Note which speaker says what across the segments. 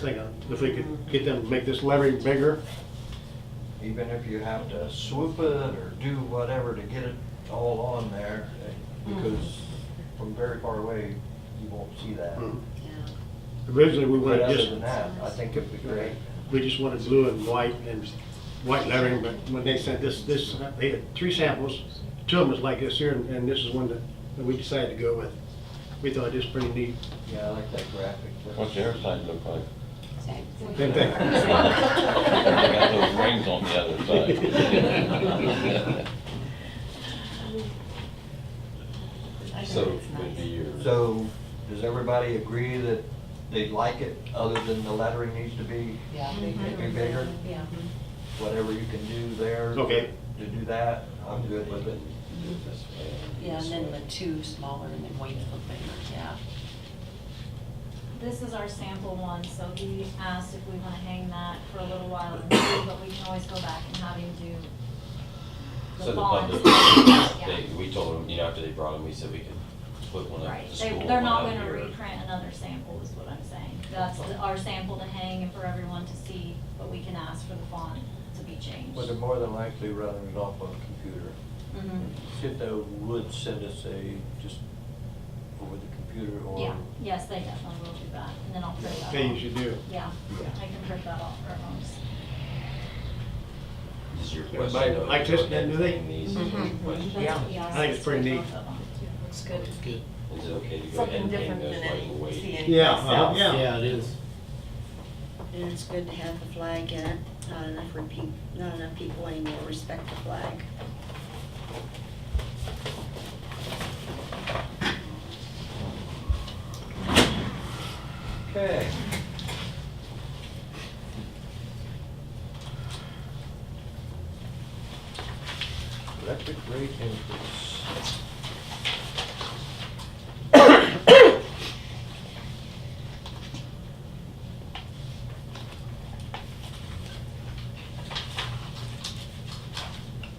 Speaker 1: thing, uh, if we could get them, to make this levy bigger,
Speaker 2: even if you have to swoop it or do whatever to get it all on there, eh, because from very far away, you won't see that.
Speaker 1: Mm.
Speaker 3: Yeah.
Speaker 1: originally we
Speaker 2: But
Speaker 1: wanted
Speaker 2: other
Speaker 1: just,
Speaker 2: than that, I think it'd be great.
Speaker 1: we just wanted blue and white and white lettering, but when they sent this, this, they had three samples, two of them was like this here, and and this is one that that we decided to go with. We thought it was pretty neat.
Speaker 2: Yeah, I like that graphic.
Speaker 4: What's the other side look like?
Speaker 1: Same thing.
Speaker 4: I got those rings on the other side.
Speaker 5: So it'd be your.
Speaker 2: So, does everybody agree that they like it, other than the lettering needs to be,
Speaker 3: Yeah.
Speaker 2: it'd be bigger?
Speaker 3: Yeah.
Speaker 2: Whatever you can do there.
Speaker 1: Okay.
Speaker 2: To do that, I'm good with it.
Speaker 3: Yeah, and then the two smaller and then wait for the bigger, yeah.
Speaker 6: This is our sample one, so he asked if we want to hang that for a little while and see, but we can always go back and have him do
Speaker 5: So
Speaker 6: the
Speaker 5: the
Speaker 6: bonds.
Speaker 5: public,
Speaker 6: Yeah.
Speaker 5: they, we told them, you know, after they brought them, we said we could put one up
Speaker 6: Right,
Speaker 5: at the
Speaker 6: they,
Speaker 5: school.
Speaker 6: they're
Speaker 5: one
Speaker 6: not
Speaker 5: up
Speaker 6: gonna
Speaker 5: here.
Speaker 6: reprint another sample is what I'm saying. That's the- our sample to hang and for everyone to see, but we can ask for the font to be changed.
Speaker 2: But they're more than likely running it off on a computer.
Speaker 6: Mhm.
Speaker 2: If they would send us a, just over the computer
Speaker 6: Yeah,
Speaker 2: or.
Speaker 6: yes, they definitely will do that, and then I'll print that off.
Speaker 1: They usually do.
Speaker 6: Yeah, I can print that off for everyone to see.
Speaker 5: This is your
Speaker 1: Everybody
Speaker 5: question. though,
Speaker 1: likes
Speaker 5: if
Speaker 1: this,
Speaker 5: they're
Speaker 1: then, do they?
Speaker 5: getting These is
Speaker 6: Mm-hmm.
Speaker 5: your question.
Speaker 7: Yeah.
Speaker 6: Yeah.
Speaker 1: I think it's pretty neat.
Speaker 7: Looks good.
Speaker 5: Is it okay to go ahead
Speaker 7: Something
Speaker 5: and hang
Speaker 7: different than
Speaker 5: those while you
Speaker 7: it- we see
Speaker 5: wait?
Speaker 7: anything
Speaker 1: Yeah, uh-huh,
Speaker 7: else.
Speaker 1: yeah.
Speaker 8: it is.
Speaker 9: And it's good to have the flag in it. Not enough repeat, not enough people anymore respect the flag.
Speaker 2: Okay. Electric rate increase.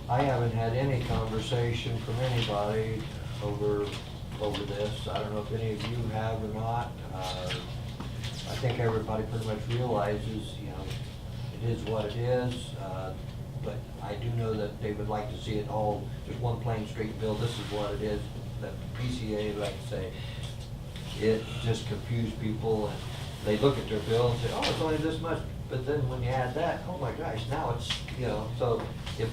Speaker 2: I haven't had any conversation from anybody over, over this. I don't know if any of you have or not. Uh, I think everybody pretty much realizes, you know, it is what it is. uh, But I do know that they would like to see it all, just one plain street bill, this is what it is. That PCA, like I say, it just confused people and they look at their bill and say, oh, it's only this much. But then when you add that, oh my gosh, now it's, you know, so if,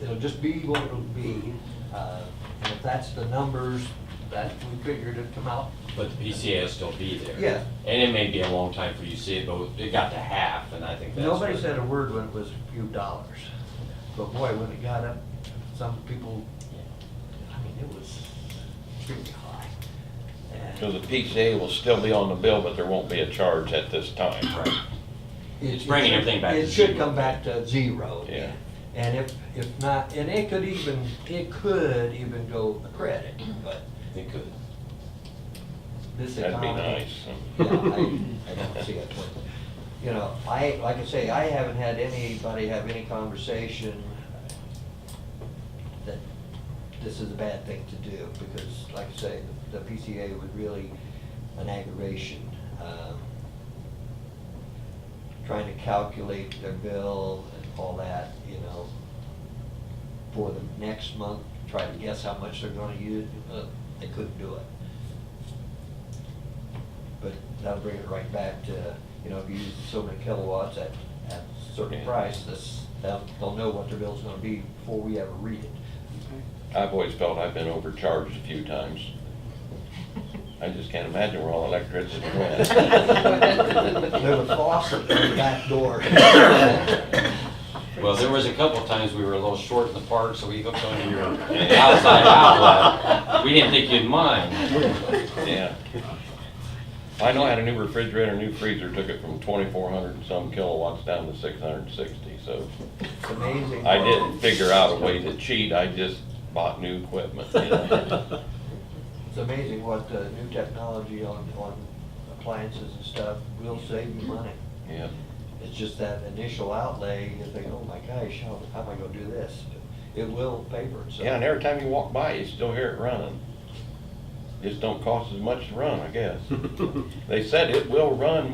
Speaker 2: it'll just be what it'll be. uh, And if that's the numbers that we figured it'd come out,
Speaker 5: But the PCA will still be there.
Speaker 2: Yeah.
Speaker 5: And it may be a long time for you to see it, but it got to half, and I think that's.
Speaker 2: Nobody
Speaker 5: what-
Speaker 2: said a word when it was a few dollars, but boy, when it got up, some people, I mean, it was extremely high.
Speaker 4: So
Speaker 2: And
Speaker 4: the PCA will still be on the bill, but there won't be a charge at this time.
Speaker 5: Right.
Speaker 2: it-
Speaker 5: It's bringing everything back to
Speaker 2: It should
Speaker 5: zero.
Speaker 2: come back to zero.
Speaker 4: Yeah.
Speaker 2: And if, if not, and it could even, it could even go a credit, but
Speaker 5: It could.
Speaker 2: this
Speaker 4: That'd be
Speaker 2: economy.
Speaker 4: nice.
Speaker 2: Yeah, I, I don't see it. but, You know, I, like I say, I haven't had anybody have any conversation that this is a bad thing to do, because like I say, the the PCA was really an aggravation. um, Trying to calculate their bill and all that, you know, for the next month, try to guess how much they're gonna use, uh, they couldn't do it. But that'll bring it right back to, you know, if you use so many kilowatts at, at a certain
Speaker 4: Yeah.
Speaker 2: price, this, they'll, they'll know what their bill's gonna be before we ever read it.
Speaker 4: I've always felt I've been overcharged a few times. I just can't imagine where all electricity
Speaker 2: There's a
Speaker 4: went.
Speaker 2: faucet in the back door.
Speaker 5: Well, there was a couple of times we were a little short in the park, so we hooked onto your outside outlet. We didn't think you'd mind.
Speaker 4: Yeah. I know I had a new refrigerator, new freezer, took it from twenty-four hundred and some kilowatts down to six hundred and sixty, so.
Speaker 2: It's amazing.
Speaker 4: I didn't figure out a way to cheat, I just bought new equipment, you know?
Speaker 2: It's amazing what uh, new technology on, on appliances and stuff will save you money.
Speaker 4: Yeah,
Speaker 2: It's just that initial outlay, you think, oh my gosh, how, how am I gonna do this? It will pay for itself.
Speaker 4: yeah, and every time you walk by, you still hear it running. Just don't cost as much to run, I guess. They said it will run